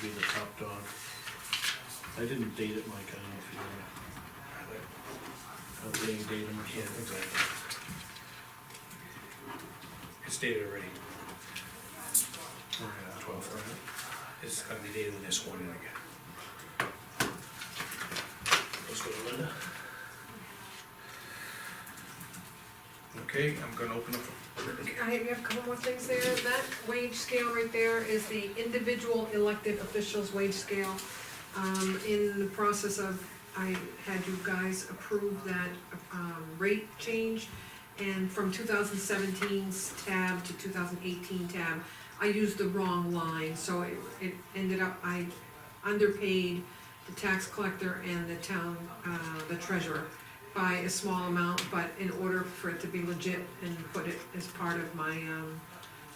be the top dog. I didn't date it, Mike, I don't know if you wanna. I'm dating datum or Yeah, something. exactly. It's dated already, Or, uh, Twelve, right? it's gotta be dated when they're sworn in again. Let's go to Linda. Okay, I'm gonna open up, I have we have a couple more things there. That wage scale right there is the individual elected officials' wage scale. Um, in the process of, I had you guys approve that, um, rate change. And from 2017's tab to two thousand eighteen tab, I used the wrong line, so it, it ended up, I underpaid the tax collector and the town, uh, the treasurer by a small amount, but in order for it to be legit and put it as part of my, um,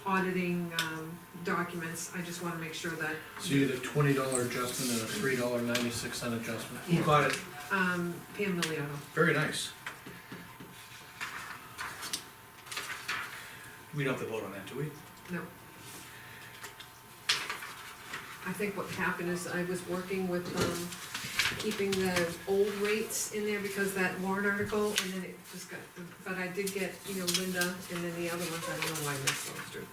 auditing, um, documents, I just wanna make sure that, So you did a twenty dollar adjustment and a three dollar ninety-six cent adjustment. who got it, um, Pam Miliano. very nice. We don't have to vote on that, do we? No. I think what happened is I was working with, um, keeping the old rates in there because that warrant article, and then it just got, but I did get, you know, Linda, and then the other ones, I don't know why this one's through.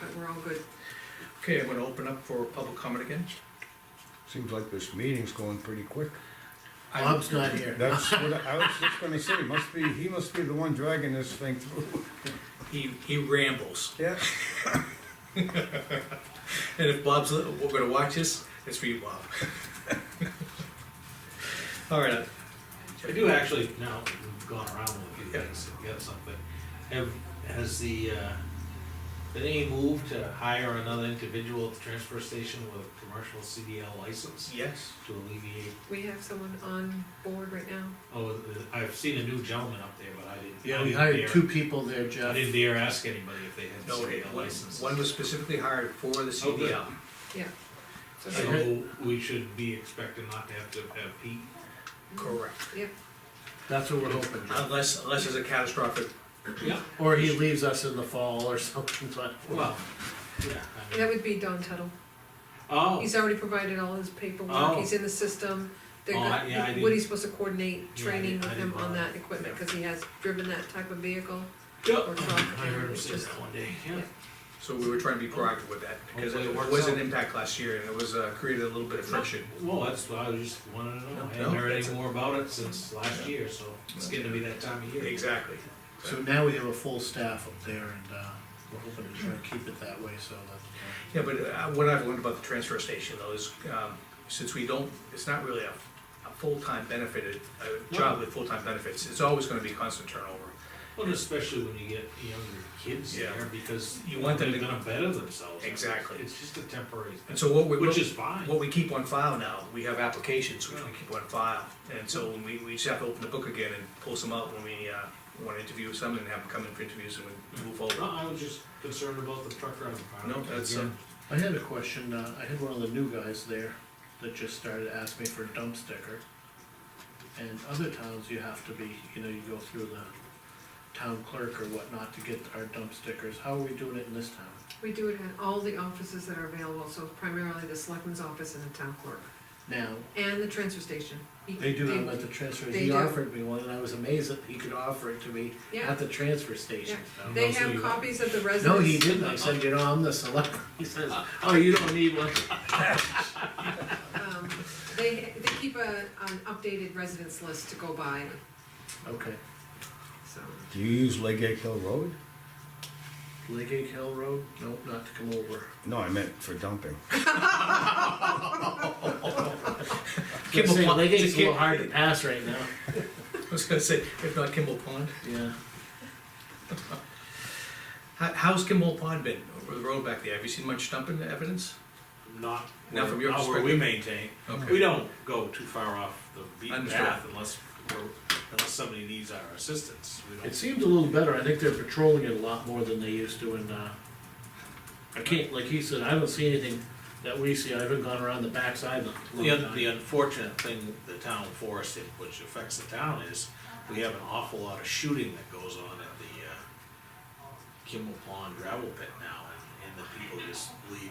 But we're all good. Okay, I'm gonna open up for public comment again. Seems like this meeting's going pretty quick. I- Bob's not here. That's what I I was just gonna say, must be, he must be the one dragging this thing through. He, he rambles, Yeah. and if Bob's, li- we're gonna watch this, it's for you, Bob. All right, uh, I do actually, now that we've gone around with a few Yeah. things, we got something. Have, has the, uh, did any move to hire another individual at the transfer station with a commercial CDL license yes, to alleviate? We have someone on board right now. Oh, I've seen a new gentleman up there, but I didn't. I Yeah, we didn't hired dare- two people there, I Jeff. didn't dare ask anybody if they had no, it- CDL one- licenses. one was specifically hired for the Oh, good. CDL. Yeah. So she- So we should be expecting not to have to have Pete. Correct. Yep, That's what we're hoping, Jeff. Unless, unless there's a catastrophic, Yeah. Or he leaves us in the fall or something, but. Well, yeah. I mean- that would be Don Tuttle. Oh, He's already provided all his paperwork, Oh. he's in the system. They're Oh, I- gonna- yeah, I didn't- Woody's supposed to coordinate Yeah, I training didn't- I with him didn't on know that equipment, cause he has driven that type of vehicle. yeah. or I truck, heard him it's say just- that one day, yeah. Yeah. so we were trying to be proactive with that, because Hopefully it it works was an out. impact last year, and it was, uh, created a little bit of friction. Well, that's what I was just wanted to know. I No, haven't heard that's any more about it since last year, so it's getting to be that time of year. Exactly. So now we have a full staff up there and, uh, we're hoping to try and keep it that way, so that. Yeah, but uh, what I've learned about the transfer station though is, um, since we don't, it's not really a, a full-time benefited, a job with full-time benefits, it's always gonna be constant turnover. Well, especially when you get younger kids Yeah. there, because You you want want them they're to- gonna better themselves. Exactly. It's just a temporary And thing, so what we, which is fine. what we keep on file now, we have applications which we keep on file. And so we, we just have to open the book again and pull some out when we, uh, wanna interview someone and have them come in for interviews and we move No, forward. I was just concerned about the truck driving part. No, that's, uh, Again, I had a question, uh, I had one of the new guys there that just started asking me for a dump sticker. And other towns you have to be, you know, you go through the town clerk or whatnot to get our dump stickers, how are we doing it in this town? We do it at all the offices that are available, so primarily the selectman's office and the town clerk, Now, and the transfer station. He- they do it at the transfer, they he do. offered me one and I was amazed that he could offer it to me Yeah, at the transfer station. I don't they know, so have you- copies of the No, residents. he didn't, I said, you know, I'm the select, he says, oh, you don't need one. Um, They, they keep a, an updated residence list to go by, Okay, so. Do you use Legate Hill Road? Lake Egg Hill Road, nope, not to come over. No, I meant for dumping. Kimball Say, Pond- Lake Egg's it's a little Kim- hard to pass right now, I was gonna say, if not Kimball Pond, yeah. how, how's Kimball Pond been, over the road back there, have you seen much dumping evidence? Not, Now, from your not where we maintain. Okay. We don't go too far off the beaten Understood. path unless, we're- unless somebody needs our assistance. We don't- It seems a little better, I think they're patrolling it a lot more than they used to, and, uh, I can't, like he said, I haven't seen anything that we see, I haven't gone around the backside of the. The, un- the unfortunate thing, the town forest, it- which affects the town, is we have an awful lot of shooting that goes on at the uh, Kimball Pond gravel pit now, and- and the people just leave